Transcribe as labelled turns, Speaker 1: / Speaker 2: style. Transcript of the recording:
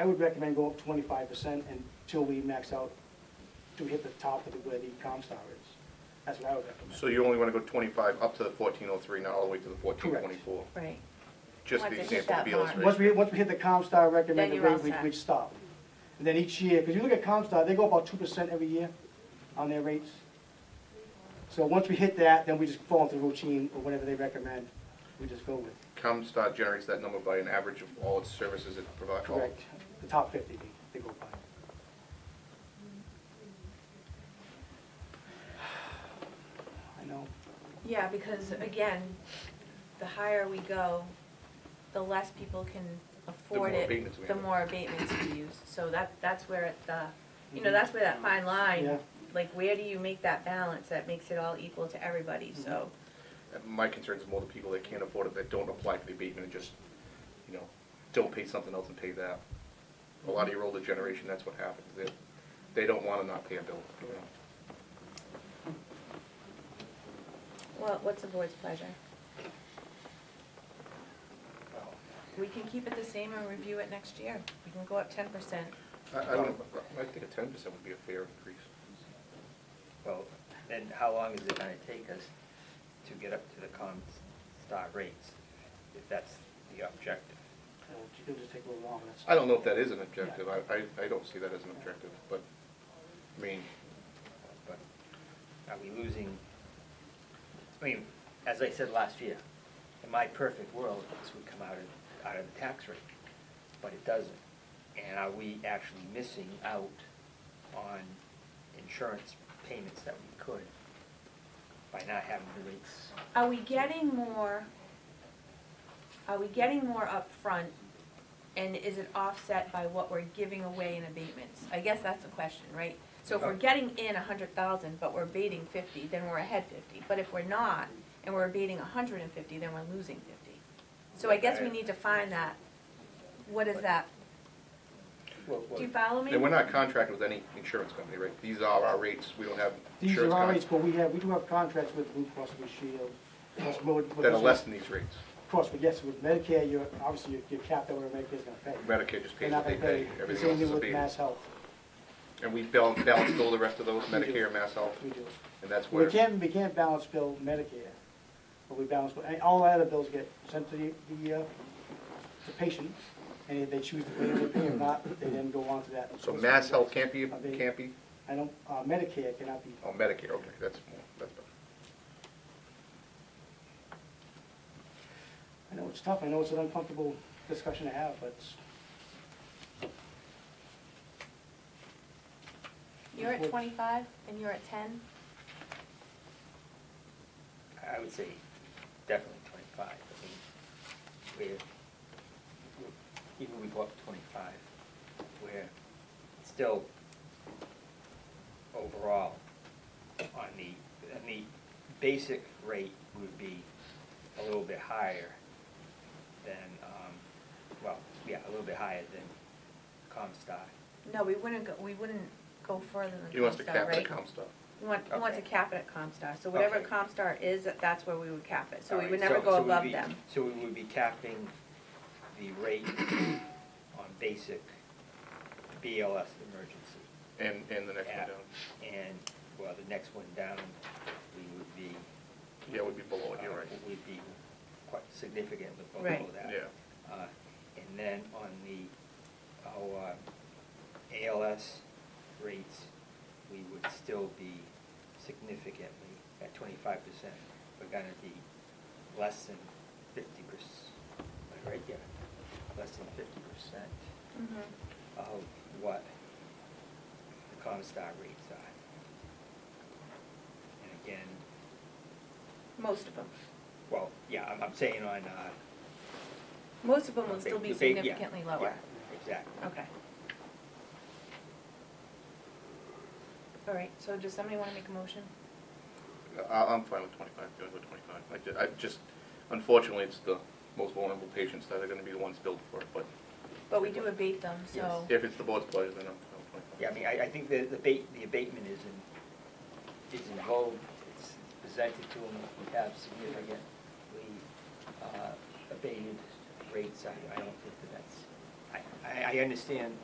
Speaker 1: I would recommend go up twenty-five percent until we max out, to hit the top of the- where the Comstar is. That's what I would recommend.
Speaker 2: So you only wanna go twenty-five up to the fourteen oh three, not all the way to the fourteen twenty-four?
Speaker 1: Correct.
Speaker 3: Right.
Speaker 2: Just
Speaker 3: Once
Speaker 2: the
Speaker 3: it hit
Speaker 2: example
Speaker 3: that
Speaker 2: of the
Speaker 3: mark.
Speaker 1: Once
Speaker 2: illustration.
Speaker 1: we, once we hit the Comstar recommended
Speaker 3: you're all
Speaker 1: rate, we'd,
Speaker 3: set.
Speaker 1: we'd stop. And then each year, because you look at Comstar, they go about two percent every year on their rates. So once we hit that, then we just fall into routine or whatever they recommend, we just go with,
Speaker 2: ComStar generates that number by an average of all its services it provides.
Speaker 1: correct, the top fifty they go by. I know,
Speaker 3: Yeah, because again, the higher we go, the less people can afford
Speaker 2: more
Speaker 3: it.
Speaker 2: abatements we
Speaker 3: The
Speaker 2: have.
Speaker 3: more abatements we use, so that, that's where it, the, you know,
Speaker 1: Mhm.
Speaker 3: that's where that fine
Speaker 1: Yeah.
Speaker 3: line, like, where do you make that balance that makes it all equal to everybody, so.
Speaker 2: And My concern is more the people that can't afford it, that don't apply for the abatement and just, you know, don't pay something else and pay that. A lot of your older generation, that's what happens. They, they don't wanna not pay a bill, you know?
Speaker 3: Well, what's the board's pleasure? We can keep it the same and review it next year, we can go up ten percent.
Speaker 2: I, I don't, I think a ten percent would be a fair increase.
Speaker 4: Well, then how long is it gonna take us to get up to the Comstar rates, if that's the objective?
Speaker 1: uh, it'll just take a little longer, that's.
Speaker 2: I don't know if that is an objective. I, I, I don't see that as an objective, but, I mean,
Speaker 4: But are we losing, I mean, as I said last year, in my perfect world, this would come out of, out of the tax rate, but it doesn't. And are we actually missing out on insurance payments that we could by not having the rates?
Speaker 3: Are we getting more, are we getting more upfront, and is it offset by what we're giving away in abatements? I guess that's the question, right? So if we're getting in a hundred thousand, but we're abating fifty, then we're ahead fifty, but if we're not, and we're abating a hundred and fifty, then we're losing fifty. So I guess we need to find that, what is that,
Speaker 4: Well, well,
Speaker 3: do you follow me?
Speaker 2: and we're not contracted with any insurance company, right? These are our rates. We don't have
Speaker 1: These are
Speaker 2: insurance
Speaker 1: our rates,
Speaker 2: companies
Speaker 1: but we have, we do have contracts with Blue Cross Blue Shield. Cross Road- with
Speaker 2: that are
Speaker 1: those-
Speaker 2: less than these rates.
Speaker 1: Of course, but yes, with Medicare, you're, obviously, you're- you're capped at what Medicare's gonna pay.
Speaker 2: Medicare just
Speaker 1: They're
Speaker 2: pays
Speaker 1: not
Speaker 2: what they
Speaker 1: gonna
Speaker 2: pay.
Speaker 1: pay, the
Speaker 2: Everything
Speaker 1: same
Speaker 2: else is
Speaker 1: thing with
Speaker 2: abated.
Speaker 1: Mass Health,
Speaker 2: And we bal- balance bill the rest of those,
Speaker 1: We do.
Speaker 2: Medicare, Mass Health,
Speaker 1: we do.
Speaker 2: and that's
Speaker 1: We
Speaker 2: where,
Speaker 1: can't, we can't balance bill Medicare, but we balance, and all other bills get sent to the, the, uh, the patient, and if they choose to pay, they pay, if not, they then go on to that.
Speaker 2: so Mass Health can't be, can't be,
Speaker 1: I don't, uh, Medicare cannot be,
Speaker 2: oh, Medicare, okay, that's, more- that's better.
Speaker 1: I know it's tough, I know it's an uncomfortable discussion to have, but it's-
Speaker 3: You're at twenty-five, and you're at ten?
Speaker 4: I would say definitely twenty-five, I mean, where, even we go up to twenty-five, we're still overall on the, on the basic rate would be a little bit higher than, um, well, yeah, a little bit higher than Comstock.
Speaker 3: No, we wouldn't go, we wouldn't go further than
Speaker 2: He wants to
Speaker 3: Comstar,
Speaker 2: cap the
Speaker 3: right?
Speaker 2: comp stuff.
Speaker 3: We want, we want to
Speaker 4: Okay.
Speaker 3: cap it at Comstar, so whatever
Speaker 4: Okay.
Speaker 3: Comstar is, that's where we would cap it, so we
Speaker 4: All
Speaker 3: would
Speaker 4: right,
Speaker 3: never go
Speaker 4: so we'd
Speaker 3: above
Speaker 4: be-
Speaker 3: them.
Speaker 4: So we would be capping the rate on basic BLS emergency.
Speaker 2: And, and the next one
Speaker 4: at-
Speaker 2: down,
Speaker 4: And, well, the next one down, we would be.
Speaker 2: yeah, would be below it, you're
Speaker 4: uh,
Speaker 2: right,
Speaker 4: We'd be quite significantly below
Speaker 3: Right.
Speaker 4: that.
Speaker 2: yeah.
Speaker 4: Uh, And then on the, our uh, ALS rates, we would still be significantly at twenty-five percent. We're gonna be less than fifty percent, right there, less than fifty percent of what the Comstock rates are. And again,
Speaker 3: Most of them.
Speaker 4: well, yeah, I'm, I'm saying on, uh.
Speaker 3: Most of them will
Speaker 4: the
Speaker 3: still be
Speaker 4: ba- yeah,
Speaker 3: significantly lower.
Speaker 4: yeah, Exactly.
Speaker 3: Okay. All right, so does somebody want to make a motion?
Speaker 2: I, I'm fine with twenty-five, doing with twenty-five. I ju- I just, unfortunately, it's the most vulnerable patients that are gonna be the ones billed for it, but
Speaker 3: But we do abate them, so.
Speaker 2: if it's the board's pleasure, then I'm fine with twenty-five.
Speaker 4: Yeah, I mean, I, I think the, the abate, the abatement is in, is in vogue, it's presented to them, we have significantly, uh, abated rates, I, I don't think that that's I, I, I understand